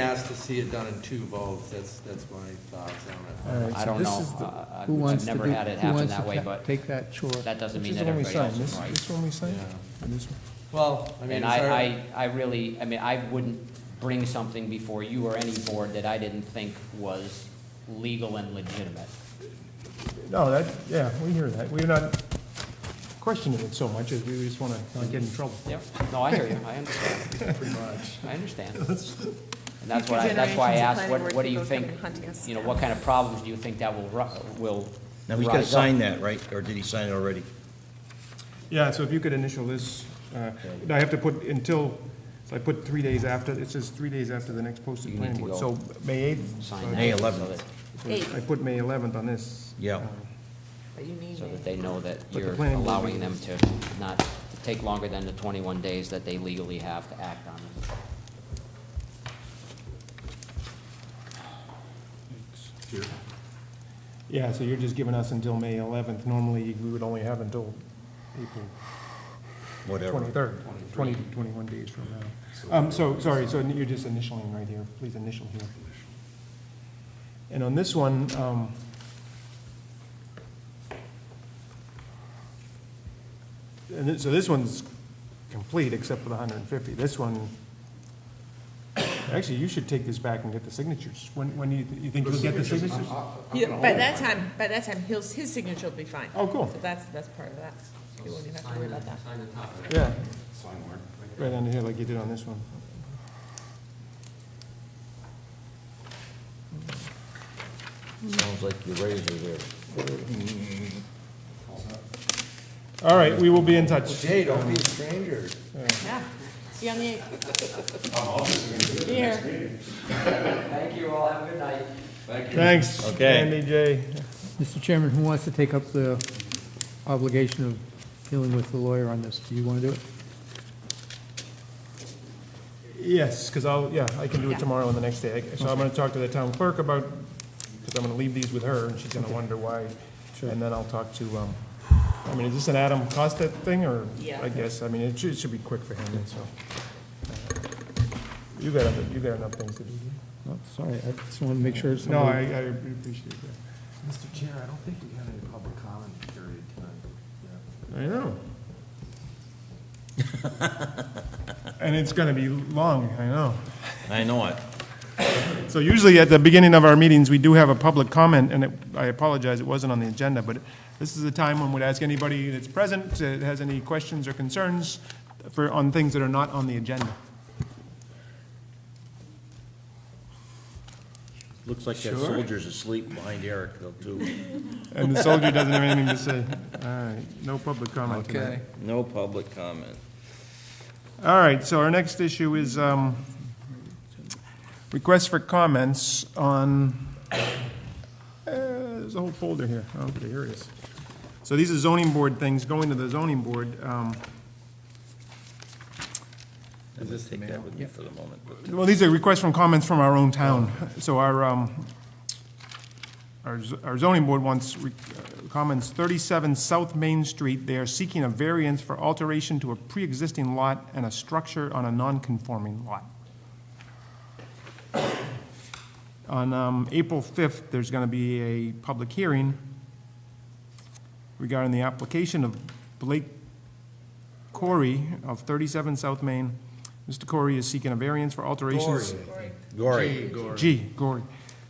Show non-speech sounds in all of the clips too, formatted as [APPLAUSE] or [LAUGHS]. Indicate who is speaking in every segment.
Speaker 1: asked to see it done in two votes, that's, that's my thoughts
Speaker 2: All
Speaker 1: on it.
Speaker 2: right,
Speaker 3: I
Speaker 2: so
Speaker 3: don't
Speaker 2: this
Speaker 3: know.
Speaker 2: is the-
Speaker 3: I- I-
Speaker 2: who
Speaker 3: I've
Speaker 2: wants to
Speaker 3: never
Speaker 2: do-
Speaker 3: had it
Speaker 2: who
Speaker 3: happen
Speaker 2: wants
Speaker 3: that
Speaker 2: to
Speaker 3: way,
Speaker 2: ta-
Speaker 3: but
Speaker 2: Take that chore.
Speaker 3: That doesn't
Speaker 2: Which
Speaker 3: mean
Speaker 2: is
Speaker 3: that
Speaker 2: the one we
Speaker 3: everybody else
Speaker 2: signed,
Speaker 3: is
Speaker 2: this-
Speaker 3: right.
Speaker 2: This one we signed?
Speaker 1: Yeah.
Speaker 2: And this one?
Speaker 1: Well, I mean,
Speaker 3: And
Speaker 1: it's our-
Speaker 3: I, I, I really, I mean, I wouldn't bring something before you or any board that I didn't think was legal and legitimate.
Speaker 2: No, that, yeah, we hear that. We're not questioning it so much as we just want to not get in trouble.
Speaker 3: Yep, no, I hear you,
Speaker 2: [LAUGHS]
Speaker 3: I understand,
Speaker 2: Pretty much. [LAUGHS]
Speaker 3: I understand. And that's
Speaker 4: Future
Speaker 3: what I, that's why I
Speaker 4: generations of
Speaker 3: asked,
Speaker 4: planning
Speaker 3: what,
Speaker 4: board
Speaker 3: what do you
Speaker 4: people
Speaker 3: think,
Speaker 4: coming hunting us
Speaker 3: you know,
Speaker 4: down.
Speaker 3: what kind of problems do you think that will ru, will
Speaker 5: Now, he's
Speaker 3: rise
Speaker 5: gotta
Speaker 3: up?
Speaker 5: sign that, right? Or did he sign it already?
Speaker 2: Yeah, so if you could initial this, uh, I have to put until, so I put three days after, it says three days after the next posted
Speaker 3: You
Speaker 2: plan.
Speaker 3: need to
Speaker 2: board.
Speaker 3: go
Speaker 2: So May 8th. so
Speaker 3: Sign that.
Speaker 5: May
Speaker 3: so
Speaker 5: 11th.
Speaker 3: that-
Speaker 2: I put May 11th on this.
Speaker 5: Yeah.
Speaker 2: Uh,
Speaker 4: But you need
Speaker 3: So
Speaker 4: it.
Speaker 3: that they know that
Speaker 2: the
Speaker 3: you're
Speaker 2: planning board
Speaker 3: allowing them
Speaker 2: meeting
Speaker 3: to not, to take longer than the twenty-one days that they legally have to act on it.
Speaker 2: Yeah, so you're just giving us until May 11th. Normally, we would only have until April
Speaker 5: Whatever.
Speaker 2: 23rd, 20, 21 days from now. Um, So, sorry, so you're just initialing right here, please initial here. And on this one, um, and thi- so this one's complete except for the 150. This one, actually, you should take this back and get the signatures. When, when do you, you think you'll get the signatures?
Speaker 4: Yeah, by that time, by that time, his, his signature will be fine.
Speaker 2: Oh, cool.
Speaker 4: So that's, that's part of that. You won't even have to worry about that.
Speaker 2: Yeah. Right under here, like you did on this one.
Speaker 5: Sounds like your razor there.
Speaker 2: All right, we will be in touch.
Speaker 1: Jay, don't be a stranger.
Speaker 4: Yeah. See you on the eighth. Here.
Speaker 3: Thank you all, have a good night.
Speaker 2: Thanks.
Speaker 5: Okay.
Speaker 2: Andy, Jay.
Speaker 6: Mr. Chairman, who wants to take up the obligation of dealing with the lawyer on this? Do you want to do it?
Speaker 2: Yes, because I'll, yeah, I can do
Speaker 4: Yeah.
Speaker 2: it tomorrow and the next day. So I'm going to talk to the town clerk about, because I'm going to leave these with her, and she's going to wonder why. And then I'll talk to, um, I mean, is this an Adam Costa thing, or?
Speaker 4: Yeah.
Speaker 2: I guess, I mean, it should, it should be quick for him, and so. Uh, You got, other- you got enough things to do.
Speaker 6: Oh, Sorry, I just want to make sure
Speaker 2: No, I, I
Speaker 6: somebody...
Speaker 2: appreciate that.
Speaker 7: Mr. Chair, I don't think we had any public comment period tonight.
Speaker 2: I know. And it's going to be long, I know.
Speaker 5: I know it.
Speaker 2: So usually at the beginning of our meetings, we do have a public comment, and it- I apologize, it wasn't on the agenda, but this is a time when we'd ask anybody that's present, that has any questions or concerns for, on things that are not on the agenda.
Speaker 5: Looks like that soldier's asleep behind Eric, though, too.
Speaker 2: And the soldier doesn't have anything to say. All right, no public comment tonight.
Speaker 5: No public comment.
Speaker 2: All right, so our next issue is um, requests for comments on, eh, there's a whole folder here. Okay, here it is. So these are zoning board things, going to the zoning board. um,
Speaker 5: I'm gonna take that with me for the moment, but
Speaker 2: Well, these are requests from comments from our own town. So our, um, our z- our zoning board wants re- uh, comments 37 South Main Street. They are seeking a variance for alteration to a pre-existing lot and a structure on a non-conforming lot. On um, April 5th, there's going to be a public hearing regarding the application of Blake Corey of 37 South Main. Mr. Corey is seeking a variance for alterations.
Speaker 5: Gory,
Speaker 2: G, Gory,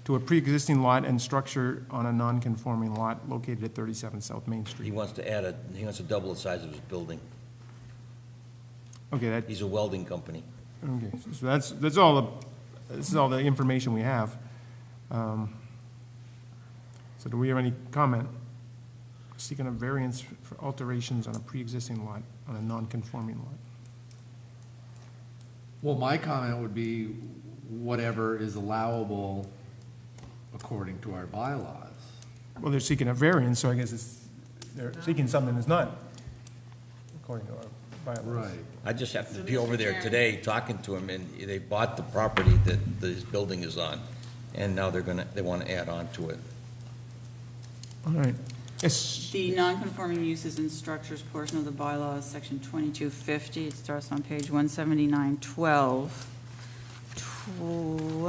Speaker 2: to a pre-existing lot and structure on a non-conforming lot located at 37 South Main
Speaker 5: he
Speaker 2: Street.
Speaker 5: wants to add a, he wants to double the size of his building.
Speaker 2: Okay, that,
Speaker 5: He's a welding company.
Speaker 2: okay, so that's, that's all the, this is all the information we have. Um, So do we have any comment? Seeking a variance for alterations on a pre-existing lot, on a non-conforming lot.
Speaker 7: Well, my comment would be whatever is allowable according to our bylaws.
Speaker 2: Well, they're seeking a variance, so I guess it's, they're seeking something that's not according to our bylaws.
Speaker 5: I just happened to be over there today, talking to him, and they bought the property that this building is on, and now they're gonna, they wanna add on to it.
Speaker 2: All right. Yes,
Speaker 8: The nonconforming uses and structures portion of the bylaws, section 2250, it starts on page 179, 12. Let